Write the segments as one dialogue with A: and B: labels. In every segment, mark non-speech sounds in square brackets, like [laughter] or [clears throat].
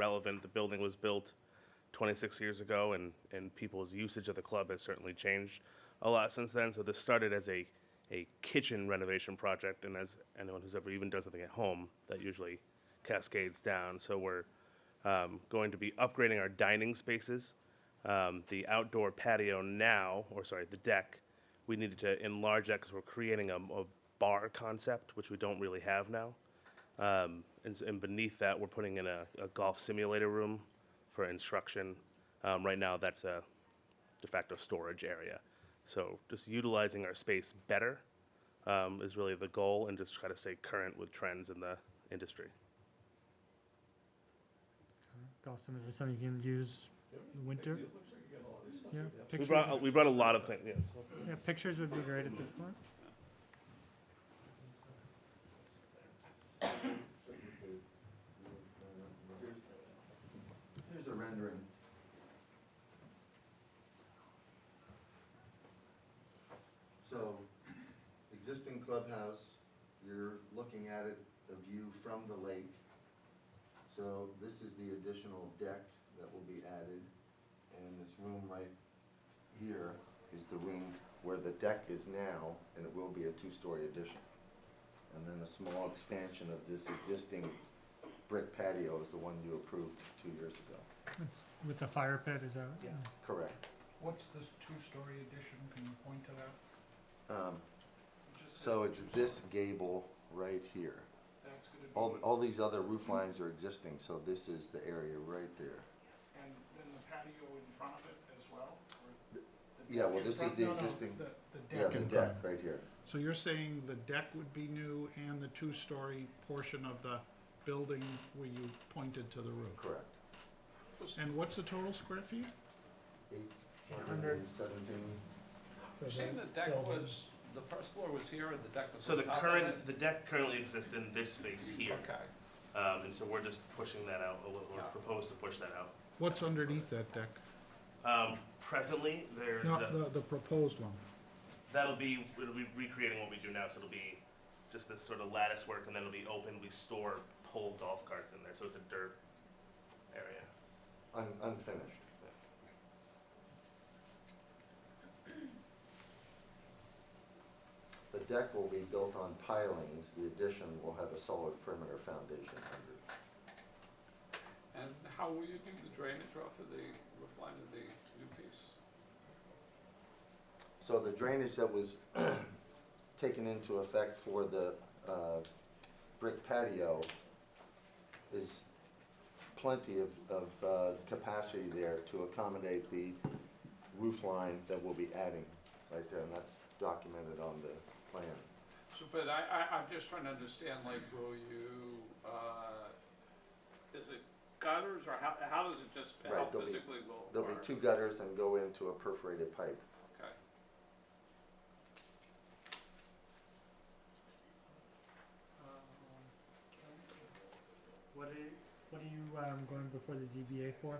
A: relevant. The building was built 26 years ago, and, and people's usage of the club has certainly changed a lot since then. So this started as a, a kitchen renovation project, and as anyone who's ever even done something at home, that usually cascades down. So we're um, going to be upgrading our dining spaces. Um, The outdoor patio now, or sorry, the deck, we needed to enlarge that because we're creating a a bar concept, which we don't really have now. Um, and, s- and beneath that, we're putting in a, a golf simulator room for instruction. Um, right now, that's a de facto storage area. So just utilizing our space better um, is really the goal, and just try to stay current with trends in the industry.
B: Golf simulator, something you can use in the winter. Yeah,
A: We
B: pictures,
A: brought, we brought a lot of things. Yeah.
B: yeah, pictures would be great at this point.
C: Here's a rendering. So, existing clubhouse, you're looking at it, a view from the lake. So this is the additional deck that will be added, and this room right here is the room where the deck is now, and it will be a two-story addition. And then a small expansion of this existing brick patio is the one you approved two years ago.
B: It's with the fire pit, is that right?
D: Yeah.
C: Correct.
D: What's this two-story addition? Can you point to that?
C: Um, So it's this gable right here.
D: That's gonna be.
C: All, all these other roof lines are existing, so this is the area right there.
D: And then the patio in front of it as well? or the
C: Yeah,
D: deck
C: well,
D: in
C: this
D: front-
C: is the
D: no, no,
C: existing-
D: The, the
C: Yeah,
D: deck
C: the
D: in front.
C: deck right here.
D: So you're saying the deck would be new and the two-story portion of the building where you pointed to the roof?
C: Correct.
D: And what's the total square feet?
C: Eight hundred
B: Hundred.
C: and seventeen.
B: For
E: You're
B: the-
E: saying the deck
B: building.
E: was, the first floor was here and the deck was
A: So
E: on
A: the
E: top of it?
A: current, the deck currently exists in this space here,
E: Okay,
A: um, and so we're just pushing that out. Or we're
E: Yeah.
A: proposed to push that out.
D: What's underneath that deck?
A: Um, presently, there's a,
D: Not the, the proposed one.
A: That'll be, it'll be recreating what we do now, so it'll be just this sort of lattice work, and then it'll be open, we store pull golf carts in there, so it's a dirt area.
C: Un, unfinished. The deck will be built on pilings, the addition will have a solid perimeter foundation under it.
E: and how will you do the drainage off of the roof line of the new piece?
C: So the drainage that was [clears throat] taken into effect for the uh, brick patio is plenty of, of uh, capacity there to accommodate the roof line that we'll be adding right there, and that's documented on the plan.
E: So, but I, I, I'm just trying to understand, like, will you, uh, is it gutters or how, how does it just,
C: Right,
E: how
C: there'll be-
E: physically will it
C: There'll be
E: work?
C: two gutters and go into a perforated pipe.
E: Okay,
B: Um, What are, you- what are you, um, going before the ZBA for?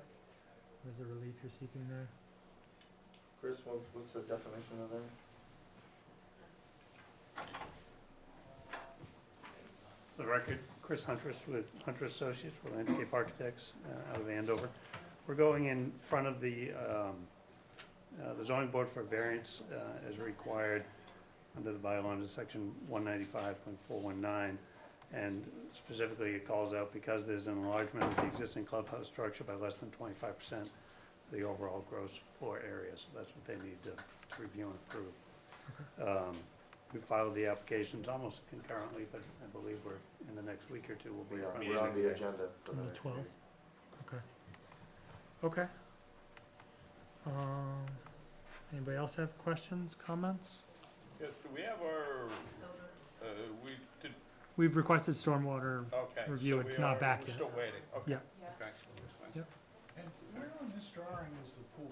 B: What is the relief you're seeking there?
C: Chris, what- what's the definition of that?
F: the record, Chris Huntress with Hunter Associates, we're landscape architects uh, out of Andover. We're going in front of the, um, uh, the zoning board for variance uh, as required under the bylaw under section one ninety-five point four one nine. And specifically, it calls out because there's an enlargement of the existing clubhouse structure by less than twenty-five percent of the overall gross floor area, so that's what they need to to review and approve. Um, we filed the applications almost concurrently, but I believe we're, in the next week or two, we'll be.
C: We're on-
F: front
C: We're on
F: and
C: the
F: center.
C: agenda for the
B: On the
C: next
B: 12th.
C: meeting.
B: Okay. Um, anybody else have questions, comments?
E: yes, do we have our, uh, we did,
B: We've requested stormwater
E: okay.
B: Review
E: so
B: it,
E: we
B: not
E: are-
B: back
E: We're
B: yet.
E: still waiting, okay.
B: Yeah.
E: Okay.
D: And where on this drawing is the pool?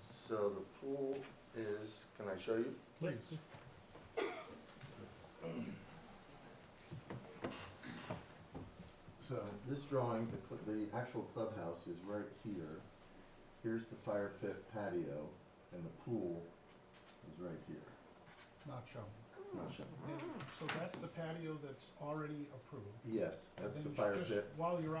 C: So the pool is, can I show you?
B: Yes,
D: Please.
B: please.
C: So this drawing, the, cl- the actual clubhouse is right here. Here's the fire pit patio, and the pool is right here.
D: Not shown. So that's the patio that's already approved. Oh.
C: Yes, that's
D: Then
C: the
D: you
C: fire
D: just-
C: pit.
D: While you're